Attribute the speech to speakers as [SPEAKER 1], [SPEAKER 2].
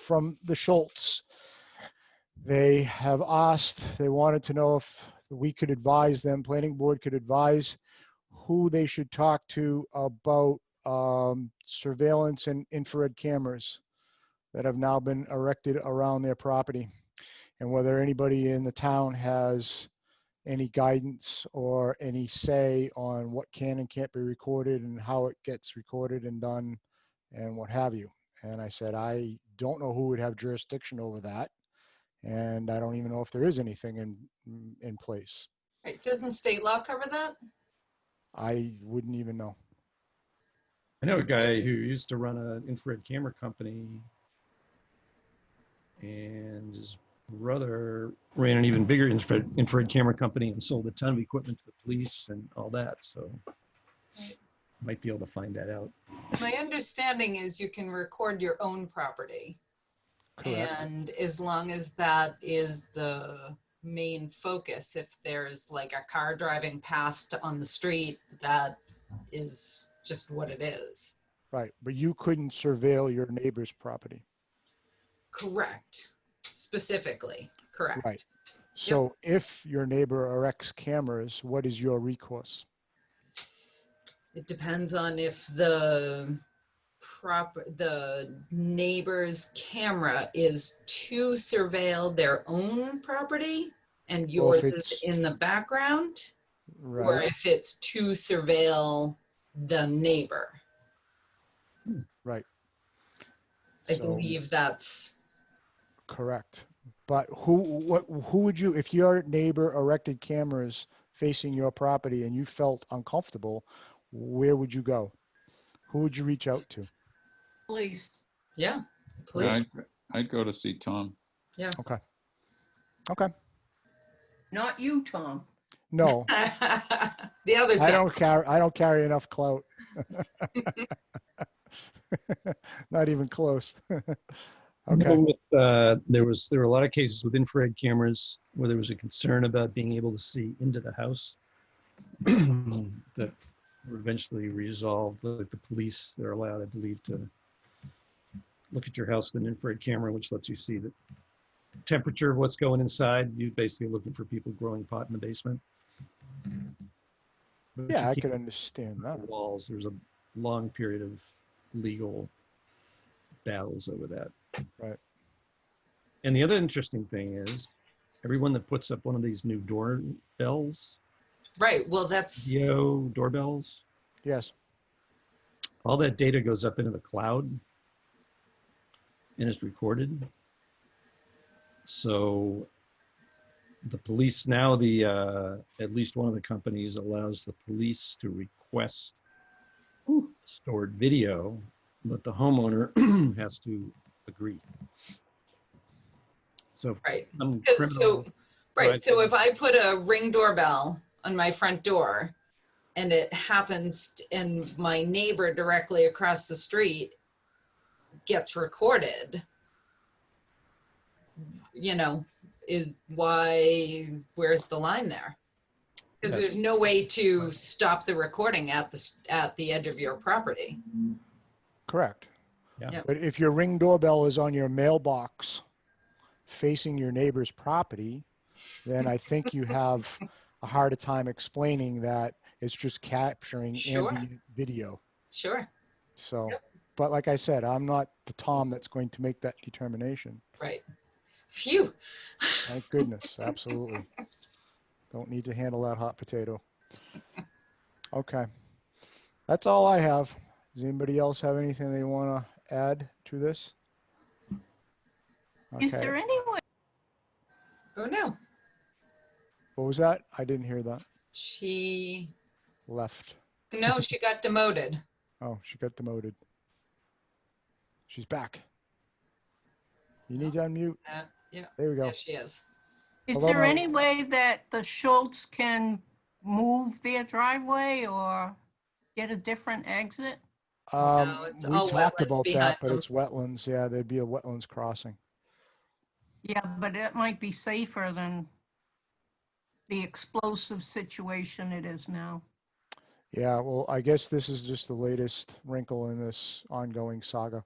[SPEAKER 1] from the Schultz. They have asked, they wanted to know if we could advise them, planning board could advise who they should talk to about um, surveillance and infrared cameras that have now been erected around their property and whether anybody in the town has any guidance or any say on what can and can't be recorded and how it gets recorded and done and what have you. And I said, I don't know who would have jurisdiction over that. And I don't even know if there is anything in, in place.
[SPEAKER 2] Right, doesn't state law cover that?
[SPEAKER 1] I wouldn't even know.
[SPEAKER 3] I know a guy who used to run an infrared camera company, and his brother ran an even bigger infrared, infrared camera company and sold a ton of equipment to the police and all that. So might be able to find that out.
[SPEAKER 2] My understanding is you can record your own property.
[SPEAKER 3] Correct.
[SPEAKER 2] And as long as that is the main focus, if there's like a car driving past on the street, that is just what it is.
[SPEAKER 1] Right. But you couldn't surveil your neighbor's property.
[SPEAKER 2] Correct. Specifically, correct.
[SPEAKER 1] Right. So if your neighbor erects cameras, what is your recourse?
[SPEAKER 2] It depends on if the prop, the neighbor's camera is to surveil their own property and
[SPEAKER 1] Or if
[SPEAKER 2] yours is
[SPEAKER 1] it's-
[SPEAKER 2] in the background, or
[SPEAKER 1] Right.
[SPEAKER 2] if it's to surveil the neighbor. I
[SPEAKER 1] So-
[SPEAKER 2] believe that's,
[SPEAKER 1] Correct. But who, what, who would you, if your neighbor erected cameras facing your property and you felt uncomfortable, where would you go? Who would you reach out to?
[SPEAKER 4] Please.
[SPEAKER 2] yeah, please,
[SPEAKER 5] I'd, I'd go to see Tom.
[SPEAKER 1] Okay. Okay.
[SPEAKER 4] Not you, Tom.
[SPEAKER 1] No,
[SPEAKER 2] The other
[SPEAKER 1] I
[SPEAKER 2] time,
[SPEAKER 1] don't carry, I don't carry enough clout. Not even close.
[SPEAKER 3] Well,
[SPEAKER 1] Okay,
[SPEAKER 3] with, uh, there was there were a lot of cases with infrared cameras where there was a concern about being able to see into the house that were eventually resolved. Like the police, they're allowed, I believe, to look at your house with an infrared camera, which lets you see the temperature of what's going inside. You're basically looking for people growing pot in the basement. But you
[SPEAKER 1] yeah, I
[SPEAKER 3] can't
[SPEAKER 1] could understand
[SPEAKER 3] the
[SPEAKER 1] that.
[SPEAKER 3] walls. There was a long period of legal battles over that.
[SPEAKER 1] Right.
[SPEAKER 3] And the other interesting thing is, everyone that puts up one of these new doorbells,
[SPEAKER 2] right, well, that's,
[SPEAKER 3] yo doorbells,
[SPEAKER 1] Yes,
[SPEAKER 3] all that data goes up into the cloud and is recorded. So the police now the uh, at least one of the companies allows the police to request stored video, but the homeowner has to agree. So if
[SPEAKER 2] right.
[SPEAKER 3] some
[SPEAKER 2] 'Cause
[SPEAKER 3] criminal,
[SPEAKER 2] so, right,
[SPEAKER 3] Right.
[SPEAKER 2] so if I put a ring doorbell on my front door and it happens, t- and my neighbor directly across the street gets recorded, you know, is why, where's the line there? Because
[SPEAKER 3] That's-
[SPEAKER 2] there's no way to stop the recording at the, s- at the edge of your property.
[SPEAKER 1] correct.
[SPEAKER 3] Yeah.
[SPEAKER 2] Yep.
[SPEAKER 1] But if your ring doorbell is on your mailbox facing your neighbor's property, then I think you have a harder time explaining that it's just capturing
[SPEAKER 2] Sure.
[SPEAKER 1] ambient video.
[SPEAKER 2] Sure,
[SPEAKER 1] So, but like I said, I'm not the Tom that's going to make that determination.
[SPEAKER 2] right. Phew.
[SPEAKER 1] Thank goodness, absolutely. Don't need to handle that hot potato. Okay. That's all I have. Does anybody else have anything they want to add to this?
[SPEAKER 4] Is
[SPEAKER 1] Okay.
[SPEAKER 4] there any way,
[SPEAKER 2] Oh, no.
[SPEAKER 1] What was that? I didn't hear that.
[SPEAKER 2] She,
[SPEAKER 1] Left.
[SPEAKER 2] no, she got demoted.
[SPEAKER 1] Oh, she got demoted. She's back. You need to unmute.
[SPEAKER 2] Uh, yeah.
[SPEAKER 1] There we go.
[SPEAKER 2] Yes, she is.
[SPEAKER 4] is
[SPEAKER 1] Hello,
[SPEAKER 4] there
[SPEAKER 1] Mel.
[SPEAKER 4] any way that the Schultz can move their driveway or get a different exit?
[SPEAKER 2] No,
[SPEAKER 1] Um,
[SPEAKER 2] it's
[SPEAKER 1] we
[SPEAKER 2] all
[SPEAKER 1] talked
[SPEAKER 2] wetlands
[SPEAKER 1] about
[SPEAKER 2] behind
[SPEAKER 1] that, but
[SPEAKER 2] them.
[SPEAKER 1] it's wetlands. Yeah, there'd be a wetlands crossing.
[SPEAKER 4] Yeah, but it might be safer than the explosive situation it is now.
[SPEAKER 1] Yeah, well, I guess this is just the latest wrinkle in this ongoing saga.